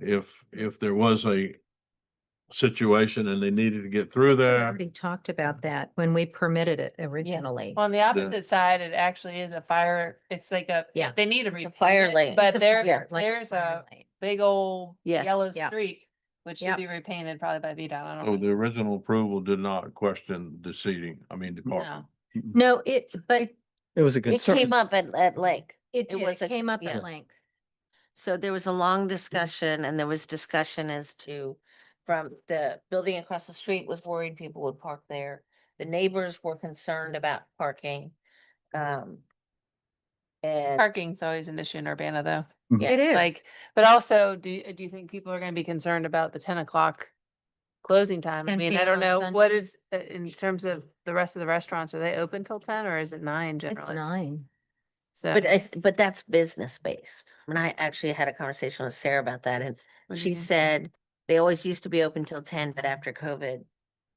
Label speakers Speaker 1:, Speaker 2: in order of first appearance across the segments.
Speaker 1: if, if there was a situation and they needed to get through
Speaker 2: Uh,
Speaker 3: We
Speaker 1: there,
Speaker 3: already talked about that when we permitted it originally.
Speaker 4: On the opposite side, it actually is a fire, it's like a,
Speaker 3: Yeah.
Speaker 4: they need a
Speaker 5: A fire lane.
Speaker 4: repaint, but
Speaker 3: It's a- yeah,
Speaker 4: there,
Speaker 3: like
Speaker 4: there's a
Speaker 3: fire lane.
Speaker 4: big old
Speaker 5: Yeah.
Speaker 4: yellow
Speaker 3: Yeah.
Speaker 4: streak, which
Speaker 3: Yep.
Speaker 4: should be repainted probably by VDOT. I
Speaker 1: oh,
Speaker 4: don't
Speaker 1: the
Speaker 4: know.
Speaker 1: original approval did not question the seating, I mean, the park.
Speaker 4: No.
Speaker 3: No, it, but
Speaker 2: It was a
Speaker 5: It
Speaker 2: concern.
Speaker 5: came up at, at Lake.
Speaker 3: it did,
Speaker 5: was
Speaker 3: it
Speaker 5: a-
Speaker 3: came up
Speaker 5: yeah.
Speaker 3: at length.
Speaker 5: So there was a long discussion and there was discussion as to from the building across the street was worried people would park there. The neighbors were concerned about parking. Um. And
Speaker 4: Parking's always an issue in Urbana though.
Speaker 5: Yeah,
Speaker 3: It is.
Speaker 4: Like, but also, do, do you think people are gonna be concerned about the ten o'clock closing time? I
Speaker 3: 10
Speaker 4: mean, I
Speaker 3: p.m.
Speaker 4: don't
Speaker 3: on
Speaker 4: know,
Speaker 3: Sunday.
Speaker 4: what is, uh, in terms of the rest of the restaurants, are they open till ten or is it nine
Speaker 3: It's
Speaker 4: generally?
Speaker 3: nine. uh,
Speaker 4: So.
Speaker 5: but it's, but that's business based. And I actually had a conversation with Sarah about that and
Speaker 4: what do you
Speaker 5: she
Speaker 4: think?
Speaker 5: said they always used to be open till ten, but after COVID.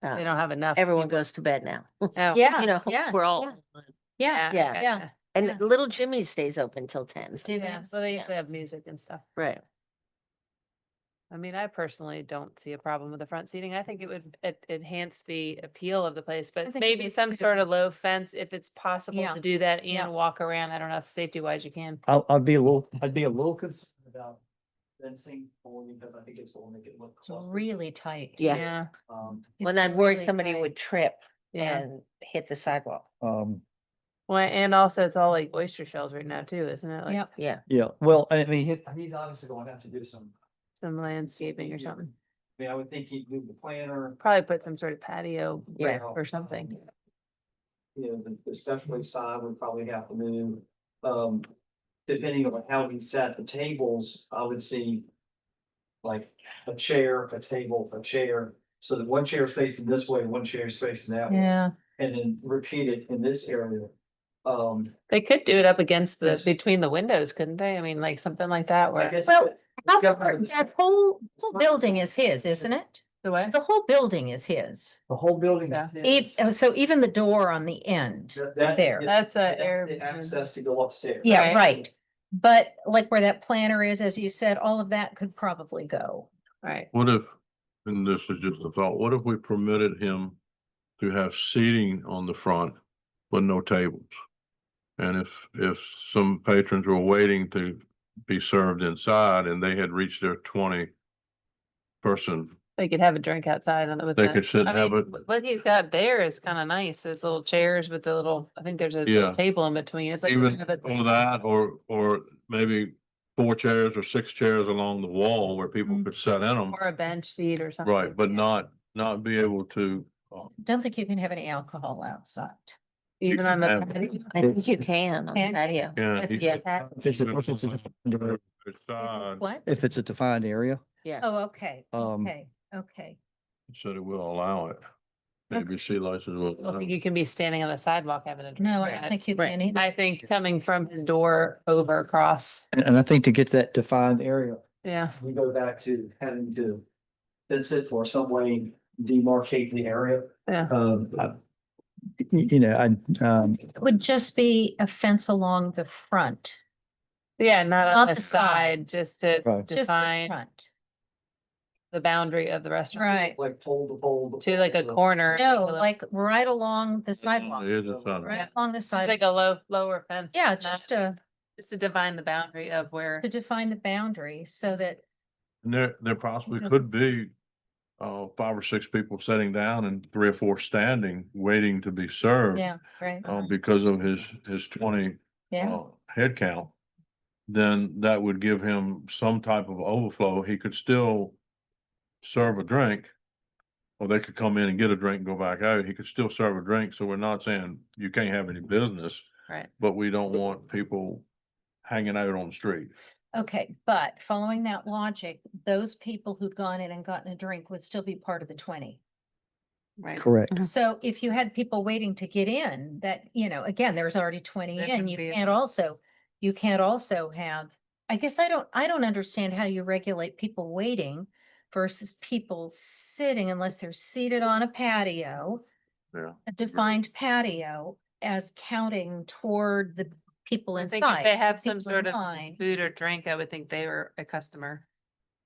Speaker 4: They
Speaker 5: uh,
Speaker 4: don't have enough.
Speaker 5: Everyone
Speaker 4: people.
Speaker 5: goes to bed now.
Speaker 4: Oh,
Speaker 3: Yeah,
Speaker 5: You know,
Speaker 3: yeah,
Speaker 5: we're
Speaker 3: yeah.
Speaker 5: all,
Speaker 3: Yeah,
Speaker 5: yeah,
Speaker 4: okay.
Speaker 3: yeah.
Speaker 5: and
Speaker 3: Yeah.
Speaker 5: Little Jimmy stays open till ten.
Speaker 4: Yeah, so they usually have music and stuff.
Speaker 5: Right.
Speaker 4: I mean, I personally don't see a problem with the front seating. I think it would e- enhance the appeal of the place,
Speaker 3: think
Speaker 4: but
Speaker 3: it
Speaker 4: maybe
Speaker 3: would
Speaker 4: some
Speaker 3: too.
Speaker 4: sort of low fence if it's possible
Speaker 3: Yeah.
Speaker 4: to do that
Speaker 3: Yeah.
Speaker 4: and walk around. I don't know if safety wise you can.
Speaker 2: I'll, I'd be a little, I'd be a little concerned about fencing only because I think it's gonna make it look.
Speaker 3: It's really tight.
Speaker 5: Yeah.
Speaker 4: Yeah,
Speaker 2: Um,
Speaker 5: Well,
Speaker 3: It's
Speaker 5: then I'd worry
Speaker 3: really
Speaker 5: somebody
Speaker 3: tight.
Speaker 5: would trip
Speaker 4: yeah.
Speaker 5: and hit the sidewalk.
Speaker 2: um,
Speaker 4: Well, and also it's all like oyster shells right now too, isn't it? Like
Speaker 3: Yep.
Speaker 5: Yeah.
Speaker 2: yeah, well, I mean, he- he's obviously going to have to do some.
Speaker 4: some landscaping or
Speaker 2: Yeah.
Speaker 4: something.
Speaker 2: I mean, I would think he'd move the planter.
Speaker 4: Probably put some sort of patio
Speaker 5: Yeah.
Speaker 4: brick or something.
Speaker 2: Um, You know, the- the specialty side would probably have to move, um, depending on how he sat the tables, I would see. Like a chair, a table, a chair, so that one chair is facing this way, one chair is facing that way.
Speaker 4: Yeah,
Speaker 2: and then repeat it in this area. Um,
Speaker 4: they could do it up against the,
Speaker 2: Yes.
Speaker 4: between the windows, couldn't they? I mean, like something like that
Speaker 2: I
Speaker 4: where.
Speaker 2: guess.
Speaker 3: Well,
Speaker 2: It's governed-
Speaker 3: That whole, whole building is his, isn't it?
Speaker 4: The way.
Speaker 3: The whole building is his.
Speaker 2: The whole building. is
Speaker 3: Ev-
Speaker 2: his.
Speaker 3: oh, so even the door on the end.
Speaker 2: That- that-
Speaker 3: there.
Speaker 2: yeah,
Speaker 4: That's a
Speaker 2: that's
Speaker 4: air.
Speaker 2: the Access to go upstairs.
Speaker 3: Yeah,
Speaker 4: Right.
Speaker 3: right. But like where that planter is, as you said, all of that could probably go.
Speaker 4: Right.
Speaker 1: What if, and this is just a thought, what if we permitted him to have seating on the front, but no tables? And if, if some patrons were waiting to be served inside and they had reached their twenty person
Speaker 4: They could have a drink outside on with
Speaker 1: They
Speaker 4: the-
Speaker 1: could sit
Speaker 4: I
Speaker 1: and have
Speaker 4: mean,
Speaker 1: it-
Speaker 4: wh- What he's got there is kind of nice. Those little chairs with the little, I think there's a
Speaker 1: Yeah.
Speaker 4: little table in between. It's like.
Speaker 1: Even
Speaker 4: kind of a-
Speaker 1: on that, or, or maybe four chairs or six chairs along the wall where people
Speaker 3: Mhm.
Speaker 1: could sit in them.
Speaker 4: Mm-hmm. Or a bench seat or something.
Speaker 1: Right, but
Speaker 4: yeah.
Speaker 1: not, not be able to, uh,
Speaker 3: Don't think you can have any alcohol outside.
Speaker 4: Even on the.
Speaker 1: have it.
Speaker 4: patio.
Speaker 5: I
Speaker 2: It's-
Speaker 5: think you can on the
Speaker 3: And-
Speaker 5: patio.
Speaker 1: yeah. he
Speaker 5: Yeah.
Speaker 1: could
Speaker 4: Pat-
Speaker 2: If it's a- if it's a defined area-
Speaker 1: Outside,
Speaker 3: What?
Speaker 2: if it's a defined area,
Speaker 5: Yeah.
Speaker 3: Oh, okay,
Speaker 1: Mm.
Speaker 2: Um,
Speaker 3: okay, okay.
Speaker 1: said it will allow it. Maybe C license will.
Speaker 4: I don't
Speaker 1: allow
Speaker 4: think
Speaker 1: it.
Speaker 4: you can be standing on the sidewalk having a. drink.
Speaker 3: No, I don't think you
Speaker 5: right.
Speaker 3: can either.
Speaker 4: I think coming from his door over across.
Speaker 2: and, and I think to get to that defined area,
Speaker 4: Yeah.
Speaker 2: we go back to having to fence it or some way demarcate the area.
Speaker 4: Yeah.
Speaker 2: Um, I- y- you know, I, um,
Speaker 3: It would just be a fence along the front,
Speaker 4: Yeah, not
Speaker 3: Not
Speaker 4: on the
Speaker 3: the
Speaker 4: side,
Speaker 3: sides.
Speaker 4: just to
Speaker 2: Right.
Speaker 3: just the
Speaker 4: define
Speaker 3: front.
Speaker 4: the boundary of the restaurant.
Speaker 3: Right.
Speaker 2: like pole to pole.
Speaker 4: To like a corner.
Speaker 3: No,
Speaker 4: a-
Speaker 3: like right along the sidewalk,
Speaker 1: It is a sign.
Speaker 3: right along the
Speaker 4: Like
Speaker 3: side.
Speaker 4: a low, lower fence.
Speaker 3: Yeah,
Speaker 4: not-
Speaker 3: just to,
Speaker 4: Just to define the boundary of where.
Speaker 3: to define the boundary so that
Speaker 1: And there, there possibly
Speaker 3: doesn't
Speaker 1: could be, uh, five or six people sitting down and three or four standing, waiting to be served.
Speaker 3: Yeah, right.
Speaker 1: uh, because of his, his twenty
Speaker 3: Yeah,
Speaker 1: uh, head count, then that would give him some type of overflow. He could still serve a drink. Or they could come in and get a drink and go back out. He could still serve a drink. So we're not saying you can't have any business.
Speaker 4: Right.
Speaker 1: But we don't want people hanging out on the street.
Speaker 3: okay, but following that logic, those people who'd gone in and gotten a drink would still be part of the twenty.
Speaker 4: Right.
Speaker 2: Correct.
Speaker 5: Mhm.
Speaker 3: So if you had people waiting to get in, that, you know, again, there's already twenty
Speaker 4: That
Speaker 3: in,
Speaker 4: could
Speaker 3: you
Speaker 4: be a-
Speaker 3: can't also, you can't also have. I guess I don't, I don't understand how you regulate people waiting versus people sitting unless they're seated on a patio.
Speaker 1: Yeah.
Speaker 3: A
Speaker 4: Mm-hmm.
Speaker 3: defined patio as counting toward the people
Speaker 4: I
Speaker 3: inside.
Speaker 4: think if they
Speaker 3: the
Speaker 4: have some
Speaker 3: people
Speaker 4: sort of
Speaker 3: in line.
Speaker 4: food or drink, I would think they were a customer.